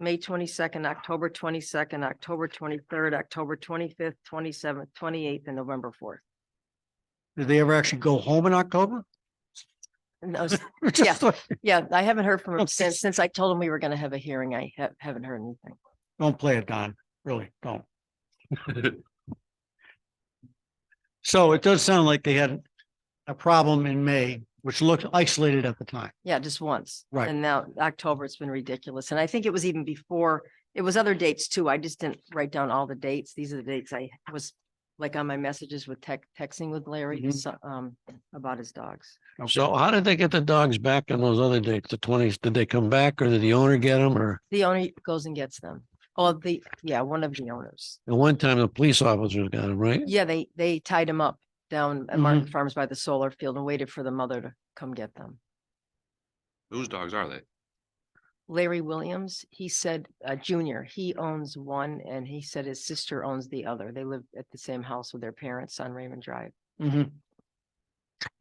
May twenty-second, October twenty-second, October twenty-third, October twenty-fifth, twenty-seventh, twenty-eighth, and November fourth. Did they ever actually go home in October? No, s- Just like- yeah, I haven't heard from him Okay. since, since I told him we were gonna have a hearing. I ha- haven't heard anything. Don't play it, Don. Really, don't. So it does sound like they had a problem in May, which looked isolated at the time. Yeah, just once. Right. And now October, it's been ridiculous. And I think it was even before, it was other dates too. I just didn't write down all the dates. These are the dates I was like on my messages with tech, texting with Larry, Mhm. so- um, about his dogs. So how did they get the dogs back on those other dates, the twenties? Did they come back or did the owner get them or? The owner goes and gets them. Oh, the, yeah, one of the owners. At one time, the police officers got them, right? Yeah, Mm-hmm. they, they tied him up down at Martin Farms by the solar field and waited for the mother to come get them. Whose dogs are they? Larry Williams, he said, uh, Junior, he owns one and he said his sister owns the other. They live at the same house with their parents on Raymond Drive. Mm-hmm. Mhm.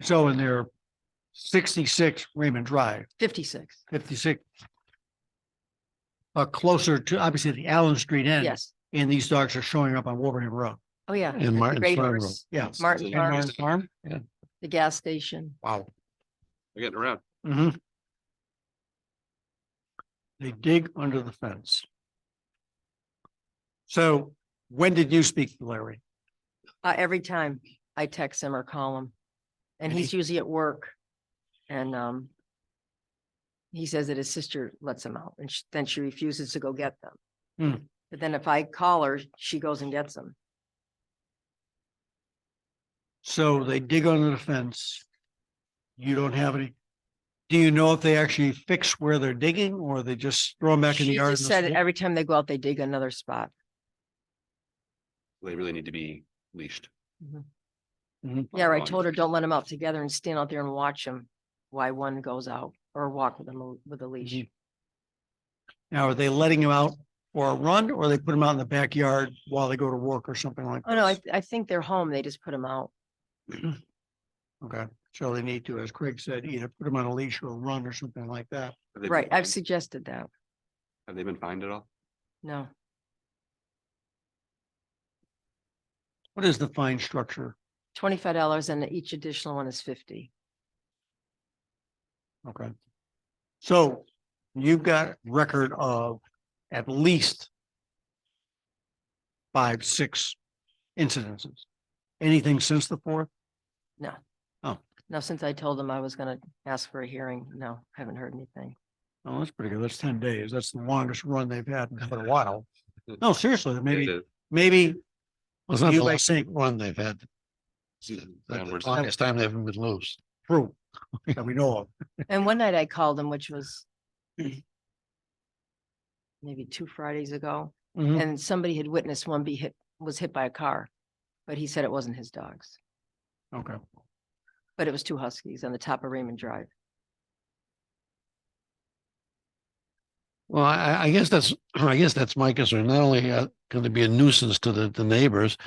So in their sixty-six Raymond Drive, Fifty-six, fifty-six. Uh, closer to obviously the Allen Street end. yes. And these dogs are showing up on Wolverham Road. Oh, yeah. And the Martin's Great Farm Road. Horse, Yeah. Martin And Farms, Martin's- Farm? the gas station. Wow. They're getting around. hmm They dig under the fence. So when did you speak to Larry? Uh, every time I text him or call him. And And he's usually at work. And, um, he says that his sister lets him out and sh- then she refuses to go get Hmm. them. But then if I call her, she goes and gets them. So they dig under the fence. You don't have any. Do you know if they actually fix where they're digging or they just throw them back in the She yard? just and Said they'll- every time they go out, they dig another spot. They really need to be leashed. Mhm. Mm-hmm. Yeah, I on- told her, don't let them out together and stand out there and watch them while one goes out or walk with them with a leash. Mhm. Now, are they letting them out for a run or they put them out in the backyard while they go to work or something like? Oh, no, I, this? I think they're home. They just put them out. Okay, so they need to, as Craig said, either put them on a leash or run or something like that. Have they been Right. fined? I've suggested that. Have they been fined at all? No, What is the fine structure? twenty-five dollars and each additional one is fifty. Okay. So you've got record of at least five, six incidences. Anything since the fourth? Now, since I told them I was gonna ask for a hearing, no, haven't heard anything. Oh, that's pretty good. That's ten days. That's the longest run they've had in quite a while. No, seriously, maybe, The- maybe Well, It's not You the like- last one they've had. the The downwards- longest time they haven't been loose. true that we know of. And one night I called them, which was maybe two Fridays ago, Mhm. and somebody had witnessed one be hit, was hit by a car. But he said it wasn't his dogs, Okay. but it was two huskies on the top of Raymond Drive. Well, I, I- I guess that's, I guess that's my concern. Not only uh, going to be a nuisance to the, the neighbors,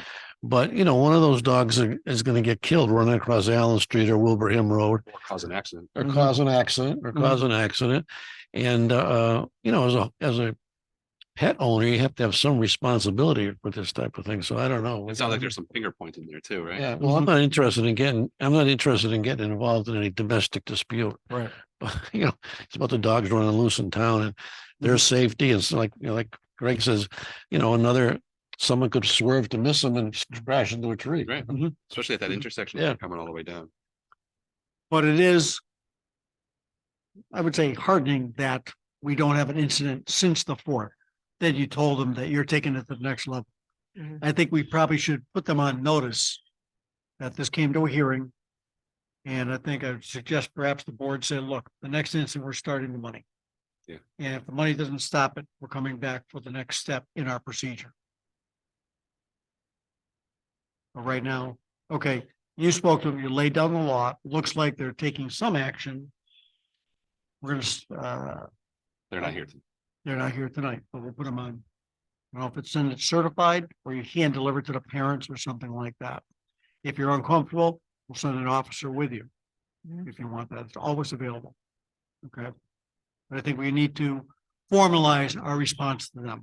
but you know, one of those dogs are- is going to get killed running across Allen Street or Wilbraham Road or Cause an accident. or Mhm. cause an accident or Mhm. cause an accident. And, uh, you know, as a, as a pet owner, you have to have some responsibility with this type of thing. So I don't know. It sounds like there's some finger pointing there too, right? Yeah, well, I'm Mhm. not interested in getting, I'm not interested in getting involved in any domestic dispute. Right. But, you know, it's about the dogs running loose in town and their safety. It's like, you know, like Greg says, you know, another, someone could swerve to miss them and crash into a tree. Right. Especially at that intersection, if Yeah. you're coming all the way down. But it is, I would say heartening that we don't have an incident since the fourth. Then you told them that you're taking it to the next level. Mhm. I think we probably should put them on notice that this came to a hearing. And I think I would suggest perhaps the board say, look, the next incident, we're starting the money. Yeah. And if the money doesn't stop it, we're coming back for the next step in our procedure. But right now, okay, you spoke to them, you laid down the law, looks like they're taking some action. We're gonna, s- uh, They're Mm-hmm. not here. to- they're not here tonight, but we'll put them on. I don't know if it's in it certified or you hand deliver it to the parents or something like that. If you're uncomfortable, we'll send an officer with you. Mhm. If you want that, it's always available. Okay. But I think we need to formalize our response to them.